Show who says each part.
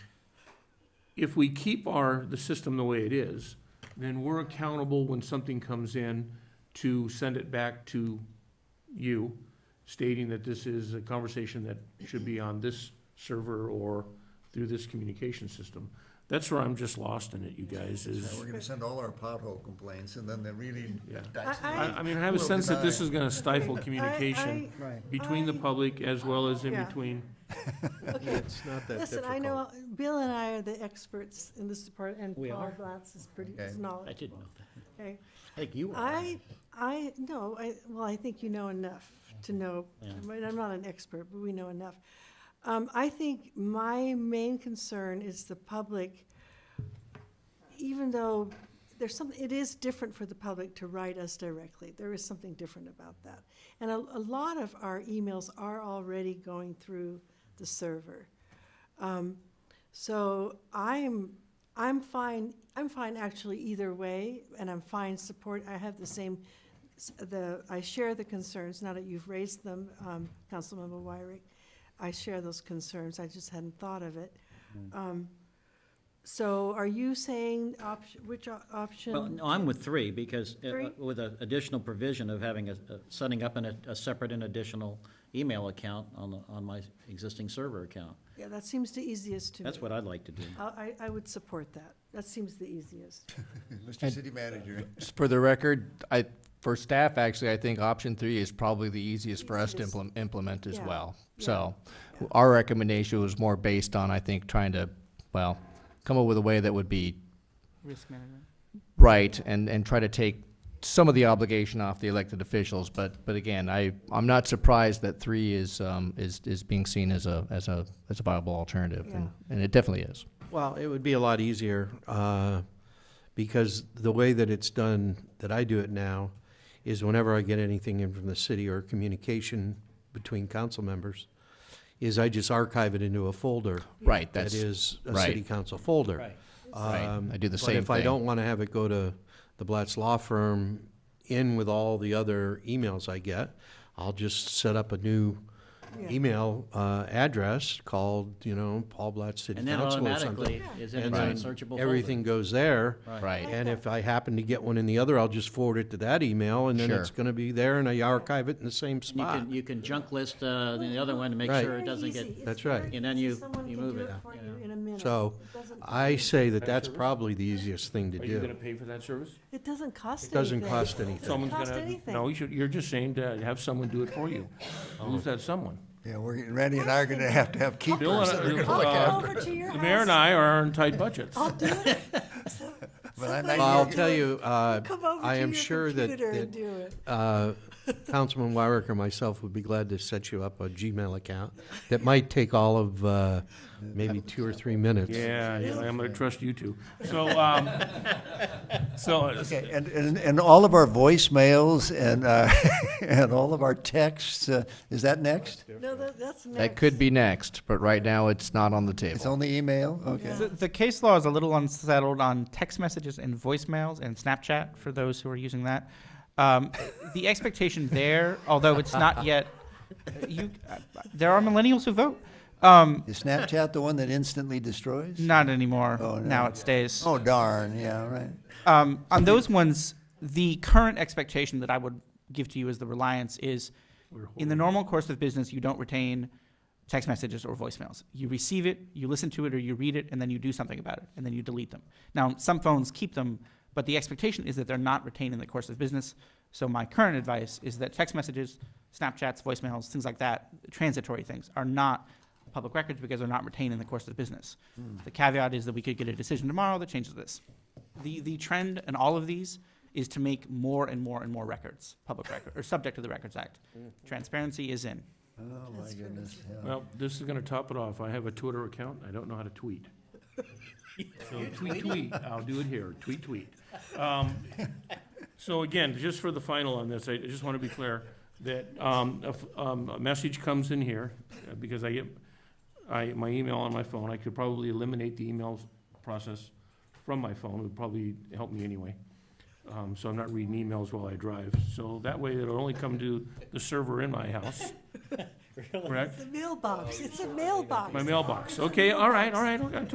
Speaker 1: if we keep our, the system the way it is, then we're accountable when something comes in to send it back to you stating that this is a conversation that should be on this server or through this communication system. That's where I'm just lost in it, you guys,
Speaker 2: Now,
Speaker 1: is,
Speaker 2: we're gonna send all our pothole complaints, and then they're really
Speaker 1: Yeah.
Speaker 2: dicey.
Speaker 1: I, I mean, I have a sense that this is gonna stifle communication
Speaker 3: I- I-
Speaker 1: between the
Speaker 3: I-
Speaker 1: public as well as in
Speaker 3: Yeah.
Speaker 1: between.
Speaker 3: Okay,
Speaker 4: It's not that
Speaker 3: listen,
Speaker 4: difficult.
Speaker 3: I know, Bill and I are the experts in this department, and
Speaker 5: We
Speaker 3: Paul
Speaker 5: are?
Speaker 3: Glatz is pretty,
Speaker 2: Okay.
Speaker 3: is
Speaker 5: I
Speaker 3: knowledgeable,
Speaker 5: didn't know that.
Speaker 3: okay?
Speaker 5: I think you were.
Speaker 3: I, I, no, I, well, I think you know enough to know,
Speaker 5: Yeah.
Speaker 3: I mean, I'm not an expert, but we know enough. Um, I think my main concern is the public, even though there's some, it is different for the public to write us directly. There is something different about that. And a, a lot of our emails are already going through the server. So I'm, I'm fine, I'm fine actually either way, and I'm fine support, I have the same, s- the, I share the concerns, now that you've raised them, um, Councilmember Wyrick. I share those concerns, I just hadn't thought of it. Um, So are you saying option, which o-
Speaker 5: Well,
Speaker 3: option?
Speaker 5: no, I'm with three, because uh,
Speaker 3: Three?
Speaker 5: with an additional provision of having a, a- setting up an, a- a separate and additional email account on, the on my existing server account.
Speaker 3: Yeah, that seems the easiest to me.
Speaker 5: That's what I'd like to do.
Speaker 3: I, I- I would support that, that seems the easiest.
Speaker 2: Mr. City Manager,
Speaker 6: Just for the record, I, for staff, actually, I think option three is probably the easiest for us to
Speaker 3: Easiest.
Speaker 6: implement, implement as
Speaker 3: Yeah.
Speaker 6: well.
Speaker 3: Yeah.
Speaker 6: So,
Speaker 3: Yeah.
Speaker 6: our recommendation was more based on, I think, trying to, well, come up with a way that would be
Speaker 7: Risk management.
Speaker 6: right and, and try to take some of the obligation off the elected officials. But, but again, I, I'm not surprised that three is, um, is, is being seen as a, as a, as a viable alternative. and- And it definitely is.
Speaker 4: Well, it would be a lot easier, uh, because the way that it's done, that I do it now, is whenever I get anything in from the city or communication between council members, is I just archive it into a folder
Speaker 6: Right,
Speaker 4: that
Speaker 6: that's,
Speaker 4: is a
Speaker 6: right.
Speaker 4: city council folder.
Speaker 6: Right.
Speaker 4: Um,
Speaker 6: I do the
Speaker 4: but
Speaker 6: same
Speaker 4: if I
Speaker 6: thing.
Speaker 4: don't want to have it go to the Blatz Law Firm in with all the other emails I get, I'll just set up a new
Speaker 3: Yeah.
Speaker 4: email uh, address called, you know, Paul Blatz City
Speaker 5: And then
Speaker 4: Council or something.
Speaker 5: automatically is in
Speaker 4: And
Speaker 5: its own
Speaker 4: then
Speaker 5: searchable folder.
Speaker 4: everything goes there.
Speaker 6: right.
Speaker 4: And if I happen to get one in the other, I'll just forward it to that email and then
Speaker 6: Sure.
Speaker 4: it's going to be there and I archive it in the same
Speaker 5: And you
Speaker 4: spot.
Speaker 5: can, you can junk list, uh, the other one to make
Speaker 4: Right.
Speaker 5: sure it
Speaker 3: Very
Speaker 5: doesn't get,
Speaker 3: easy. It's
Speaker 4: That's right.
Speaker 3: very
Speaker 5: And then you-
Speaker 3: easy. Someone
Speaker 5: you
Speaker 3: can
Speaker 5: move
Speaker 3: do
Speaker 5: it,
Speaker 3: for
Speaker 5: you
Speaker 3: you
Speaker 5: know.
Speaker 3: in a minute.
Speaker 4: So,
Speaker 3: It doesn't-
Speaker 4: I say that that's
Speaker 1: Service?
Speaker 4: probably the easiest thing to
Speaker 1: Are you gonna
Speaker 4: do.
Speaker 1: pay for that service?
Speaker 3: It doesn't cost
Speaker 4: It doesn't
Speaker 3: anything.
Speaker 4: cost anything.
Speaker 1: Someone's
Speaker 3: cost
Speaker 1: gonna,
Speaker 3: anything.
Speaker 1: no, you should, you're just saying to have someone do it for you. Who's that someone?
Speaker 2: yeah, we're, Randy and I are gonna have to have keepers
Speaker 1: Bill and
Speaker 2: that
Speaker 1: I-
Speaker 2: are gonna
Speaker 1: Bill
Speaker 2: look
Speaker 1: and I-
Speaker 2: after.
Speaker 3: I'll come over to your
Speaker 1: The mayor and
Speaker 3: house.
Speaker 1: I are on tight budgets.
Speaker 3: I'll do it.
Speaker 2: But I
Speaker 3: Somebody
Speaker 2: know
Speaker 4: I'll
Speaker 3: will
Speaker 4: tell
Speaker 3: do it.
Speaker 4: you, uh,
Speaker 3: Come over
Speaker 4: I
Speaker 3: to
Speaker 4: am
Speaker 3: your
Speaker 4: sure that-
Speaker 3: computer and
Speaker 4: that
Speaker 3: do it.
Speaker 4: Uh, Councilman Wyrick or myself would be glad to set you up a Gmail account that might take all of uh, maybe two or three minutes.
Speaker 1: Yeah, yeah, I'm gonna trust you two. So, um, so, uh,
Speaker 2: Okay, and, and, and all of our voicemails and, uh, and all of our texts, uh, is that next?
Speaker 3: No, that, that's next.
Speaker 6: That could be next, but right now it's not on the
Speaker 2: It's
Speaker 6: table.
Speaker 2: only email? Okay.
Speaker 7: The, the case law is a little unsettled on text messages and voicemails and Snapchat for those who are using that. Um, the expectation there, although it's not yet, you, there are millennials who vote. Um,
Speaker 2: Is Snapchat the one that instantly destroys?
Speaker 7: not anymore.
Speaker 2: Oh, no.
Speaker 7: Now it stays.
Speaker 2: Oh darn, yeah, right.
Speaker 7: Um, on those ones, the current expectation that I would give to you as the reliance is, in the normal course of business, you don't retain text messages or voicemails. You receive it, you listen to it, or you read it, and then you do something about it, and then you delete them. Now, some phones keep them, but the expectation is that they're not retained in the course of business. So my current advice is that text messages, Snapchats, voicemails, things like that, transitory things, are not public records because they're not retained in the course of business. The caveat is that we could get a decision tomorrow that changes this. The, the trend in all of these is to make more and more and more records, public record, or subject to the Records Act. Transparency is in.
Speaker 2: Oh, my goodness, yeah.
Speaker 1: well, this is gonna top it off. I have a Twitter account. I don't know how to tweet. So tweet, tweet. I'll do it here. Tweet, tweet. Um, so again, just for the final on this, I just wanna be clear that, um, if, um, a message comes in here, uh, because I get, I, my email on my phone, I could probably eliminate the emails process from my phone. It would probably help me anyway. Um, so I'm not reading emails while I drive. So that way it'll only come to the server in my house. Correct?
Speaker 3: The mailbox, it's a mailbox.
Speaker 1: Oh, My mailbox. Okay, all right, all right. okay.